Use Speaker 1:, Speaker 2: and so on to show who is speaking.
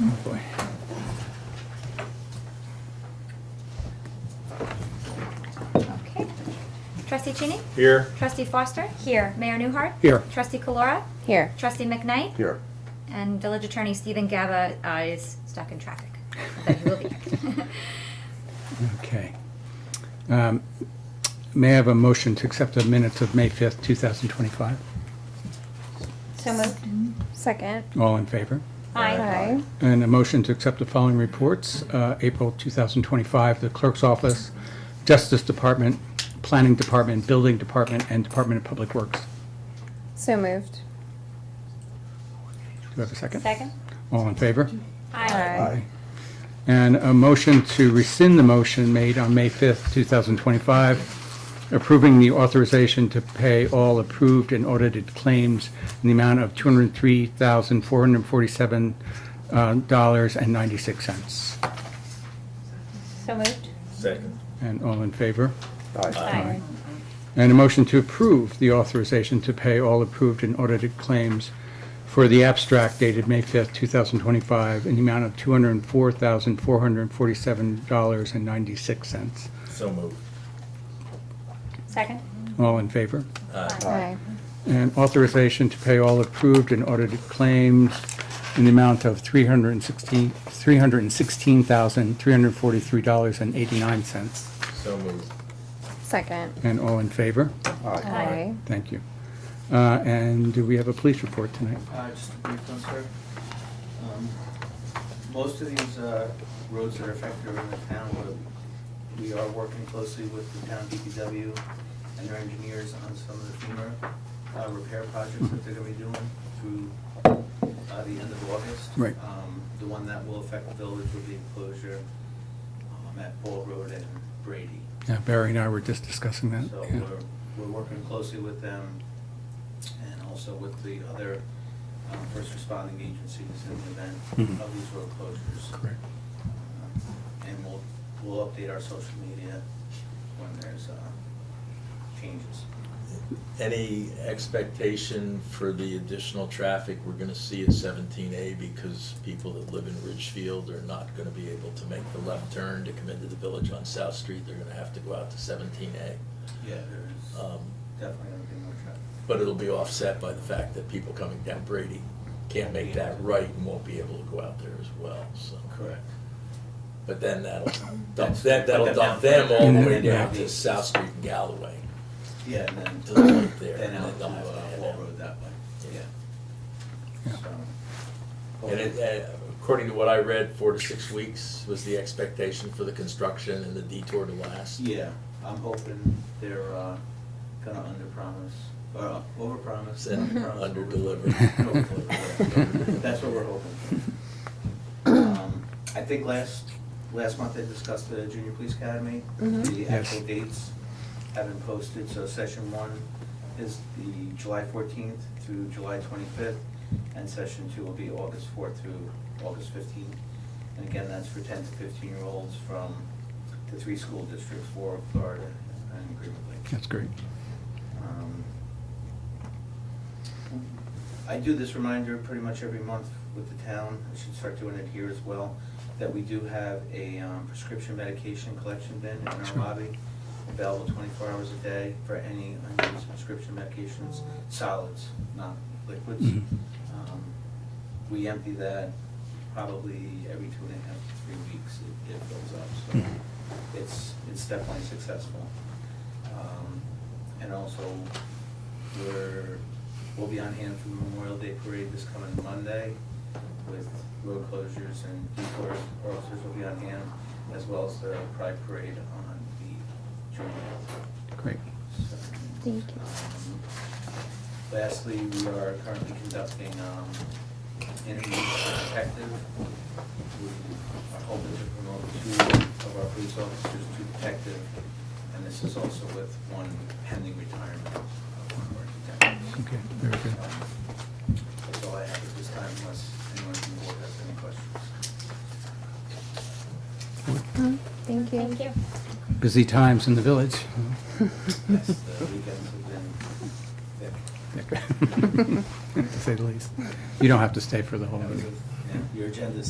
Speaker 1: Oh, boy.
Speaker 2: Okay. Trustee Cheney?
Speaker 3: Here.
Speaker 2: Trustee Foster? Here. Mayor Newhart?
Speaker 1: Here.
Speaker 2: Trustee Calora?
Speaker 4: Here.
Speaker 2: Trustee McKnight?
Speaker 3: Here.
Speaker 2: And Village Attorney Stephen Gaba uh, is stuck in traffic, but he will be back.
Speaker 1: Okay. Um, May I have a motion to accept the minutes of May 5th, 2025?
Speaker 4: So moved. Second.
Speaker 1: All in favor?
Speaker 4: Aye.
Speaker 1: And a motion to accept the following reports, uh, April 2025, the Clerk's Office, Justice Department, Planning Department, Building Department, and Department of Public Works.
Speaker 4: So moved.
Speaker 1: Do you have a second?
Speaker 4: Second.
Speaker 1: All in favor?
Speaker 4: Aye.
Speaker 1: And a motion to rescind the motion made on May 5th, 2025, approving the authorization to pay all approved and audited claims in the amount of uh, $203,447.96.
Speaker 4: So moved.
Speaker 3: Second.
Speaker 1: And all in favor?
Speaker 3: Aye.
Speaker 1: And a motion to approve the authorization to pay all approved and audited claims for the abstract dated May 5th, 2025, in the amount of $204,447.96.
Speaker 3: So moved.
Speaker 4: Second.
Speaker 1: All in favor?
Speaker 4: Aye.
Speaker 1: And authorization to pay all approved and audited claims in the amount of $316 $316,343.89.
Speaker 3: So moved.
Speaker 4: Second.
Speaker 1: And all in favor?
Speaker 4: Aye.
Speaker 1: Thank you. Uh, And do we have a police report tonight?
Speaker 5: Uh, Just a brief one, sir. Um, Most of these uh, roads that are affected are in the town, but we are working closely with the town DPW and their engineers on some of the FEMA uh, repair projects that they're gonna be doing through uh, the end of August.
Speaker 1: Right.
Speaker 5: Um, The one that will affect the village will be enclosure um, at Ball Road and Brady.
Speaker 1: Yeah, Barry and I were just discussing that.
Speaker 5: So
Speaker 1: yeah.
Speaker 5: we're, we're working closely with them and also with the other um, first responding agencies in the event
Speaker 1: Mhm.
Speaker 5: of these road closures.
Speaker 1: Correct.
Speaker 5: Um, And we'll, we'll update our social media when there's uh, changes.
Speaker 3: Any expectation for the additional traffic we're gonna see at seventeen A because people that live in Ridgefield are not gonna be able to make the left turn to come into the village on South Street, they're gonna have to go out to seventeen A. Um,
Speaker 5: Yeah. There's Uh, definitely gonna be more traffic.
Speaker 3: But it'll be offset by the fact that people coming down Brady can't make that right and won't be able to go out there as well, so. But then that'll dump, that, that'll dump them all the way down to South Street and Galloway.
Speaker 5: Yeah, and then.
Speaker 3: To the right there,
Speaker 5: Then
Speaker 3: and
Speaker 5: out to
Speaker 3: then up,
Speaker 5: uh,
Speaker 3: yeah.
Speaker 5: Wall Road that way,
Speaker 3: Yeah.
Speaker 5: yeah.
Speaker 1: Yeah.
Speaker 5: So-
Speaker 3: And it, uh, according to what I read, four to six weeks was the expectation for the construction and the detour to last.
Speaker 5: Yeah, I'm hoping they're uh, gonna underpromise, or overpromise.
Speaker 3: And
Speaker 5: underpromise,
Speaker 3: underdeliver.
Speaker 5: overdeliver. Overdeliver. That's what we're hoping. for. Um, I think last, last month I discussed the junior police academy. The
Speaker 1: Yes.
Speaker 5: actual dates have been posted, so session one is the July fourteenth through July twenty-fifth, and session two will be August fourth through August fifteenth. And again, that's for ten to fifteen-year-olds from the three school districts, Warwick, Florida, and Greenwood Lake.
Speaker 1: That's great.
Speaker 5: Um, I do this reminder pretty much every month with the town, I should start doing it here as well, that we do have a um, prescription medication collection bin in our
Speaker 1: Sure.
Speaker 5: lobby, available twenty-four hours a day for any unused prescription medications, solids, not liquids.
Speaker 1: Mhm.
Speaker 5: Um, We empty that probably every two and a half to three weeks, it- it fills up, so
Speaker 1: Mhm.
Speaker 5: it's, it's definitely successful. Um, And also, we're, we'll be on hand for Memorial Day Parade this coming Monday with road closures and detour officers will be on hand, as well as the Pride Parade on the June
Speaker 1: Great.
Speaker 4: Thank you.
Speaker 5: Lastly, we are currently conducting um, interviews for detective. We are hoping to promote two of our police officers to detective, and this is also with one pending retirement of one of our detectives.
Speaker 1: Okay, very good.
Speaker 5: Um, That's all I have at this time, unless anyone from the board has any questions.
Speaker 4: Thank you. Thank you.
Speaker 1: Busy times in the village.
Speaker 5: Yes, the weekends have been thick.
Speaker 1: To say the least. You don't have to stay for the whole
Speaker 5: That was a-
Speaker 1: meeting.
Speaker 5: yeah, Your agenda's